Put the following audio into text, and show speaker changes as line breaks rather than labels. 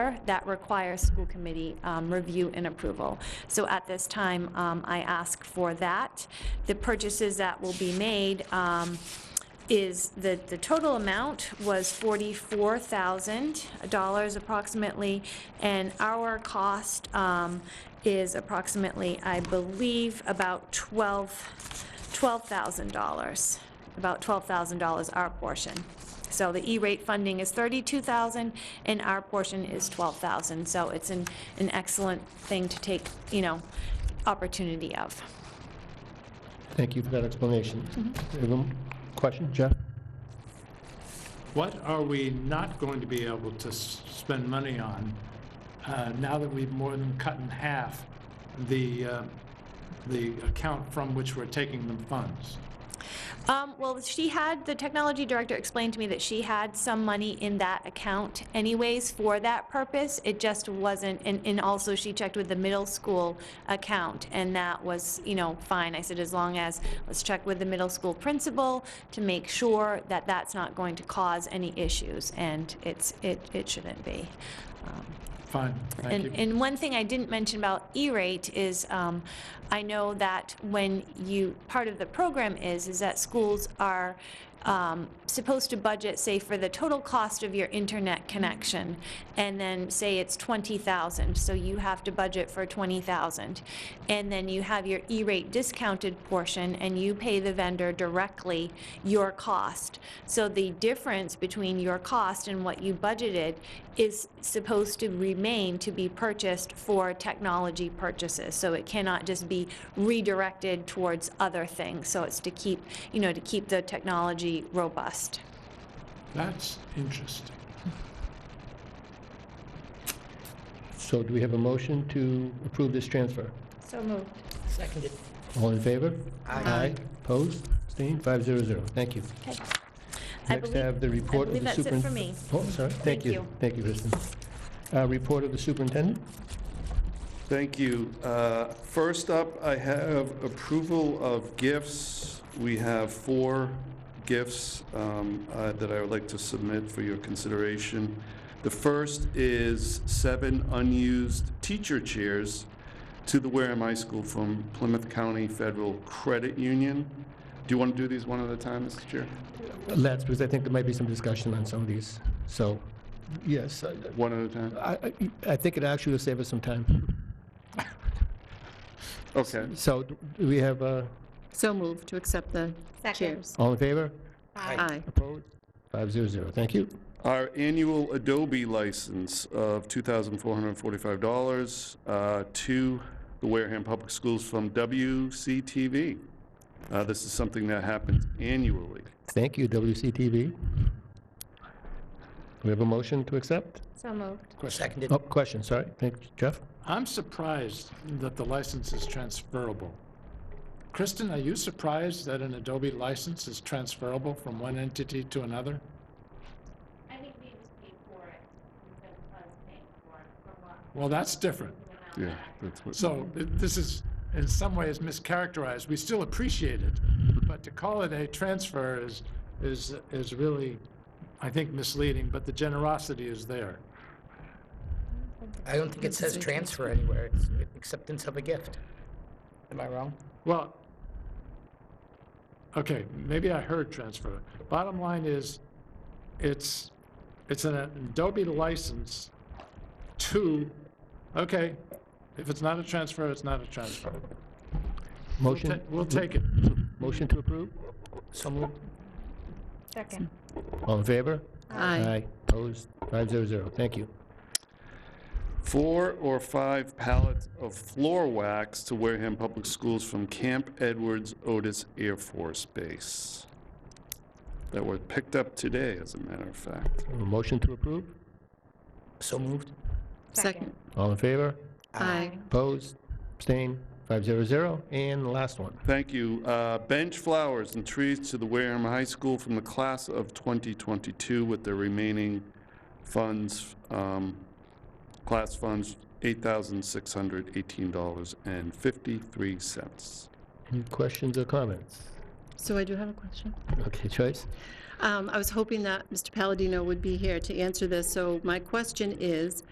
4 that requires school committee um, review and approval. So at this time, um, I ask for that. The purchases that will be made um, is, the, the total amount was $44,000 approximately, and our cost um, is approximately, I believe, about 12, $12,000, about $12,000 our portion. So the E-rate funding is 32,000 and our portion is 12,000. So it's an, an excellent thing to take, you know, opportunity of.
Thank you for that explanation.
Mm-hmm.
Anyone- Question, Jeff?
What are we not going to be able to s- spend money on uh, now that we've more than cut in half the, uh, the account from which we're taking the funds?
Um, well, she had, the technology director explained to me that she had some money in that account anyways for that purpose. It just wasn't, and, and also she checked with the middle school account, and that was, you know, fine. I said, as long as, let's check with the middle school principal to make sure that that's not going to cause any issues, and it's, it, it shouldn't be. Um,
Fine, thank
and,
you.
and one thing I didn't mention about E-rate is, um, I know that when you, part of the program is, is that schools are um, supposed to budget, say, for the total cost of your internet connection, and then say it's 20,000, so you have to budget for 20,000. And then you have your E-rate discounted portion, and you pay the vendor directly your cost. So the difference between your cost and what you budgeted is supposed to remain to be purchased for technology purchases. So it cannot just be redirected towards other things. So it's to keep, you know, to keep the technology robust.
That's interesting.
So do we have a motion to approve this transfer?
So moved.
Seconded.
All in favor?
Aye.
Opposed? Abstained? 500. Thank you.
I
Next,
believe-
have the report of
believe
the
that's it
superin...
for me.
Oh, sorry.
Thank
Thank
you.
you. Thank you, Kristen. Uh, Report of the superintendent?
Thank you. Uh, First up, I have approval of gifts. We have four gifts um, uh, that I would like to submit for your consideration. The first is seven unused teacher chairs to the Wareham High School from Plymouth County Federal Credit Union. Do you want to do these one at a time, Mr. Chair?
Let's, because I think there might be some discussion on some of these. So, yes, I-
One at a time?
I I- I think it actually will save us some time.
Okay.
So do we have, uh,
So moved to accept the
Second.
chairs.
all in favor?
Aye.
Opposed? 500. Thank you.
Our annual Adobe license of $2,445 uh, to the Wareham Public Schools from WCTV. Uh, This is something that happens annually.
Thank you, WCTV. We have a motion to accept?
So moved.
Seconded.
Oh, question, sorry. Thank you, Jeff.
I'm surprised that the license is transferable. Kristen, are you surprised that an Adobe license is transferable from one entity to another?
I think we just paid for it instead of us paying for it from what
Well, that's different.
Yeah, that's what.
So th- this is, in some ways, mischaracterized. We still appreciate it, but to call it a transfer is, is, is really, I think, misleading, but the generosity is there.
I don't think it says transfer anywhere. It's acceptance of a gift. Am I wrong?
Well, okay, maybe I heard transfer. Bottom line is, it's, it's an Adobe license to, okay, if it's not a transfer, it's not a transfer. We'll ta-
Motion,
We'll take it.
motion to approve?
So moved.
Second.
All in favor?
Aye.
Opposed? 500. Thank you.
Four or five pallets of floor wax to Wareham Public Schools from Camp Edwards Otis Air Force Base that were picked up today, as a matter of fact.
A Motion to approve?
So moved.
Second.
All in favor?
Aye.
Opposed? Abstained? 500. And the last one.
Thank you. Uh, Bench flowers and trees to the Wareham High School from the class of 2022 with the remaining funds, um, class funds, $8,618.53.
Any questions or comments?
So I do have a question.
Okay, Joyce?
Um, I was hoping that Mr. Palladino would be here to answer this. So my question is,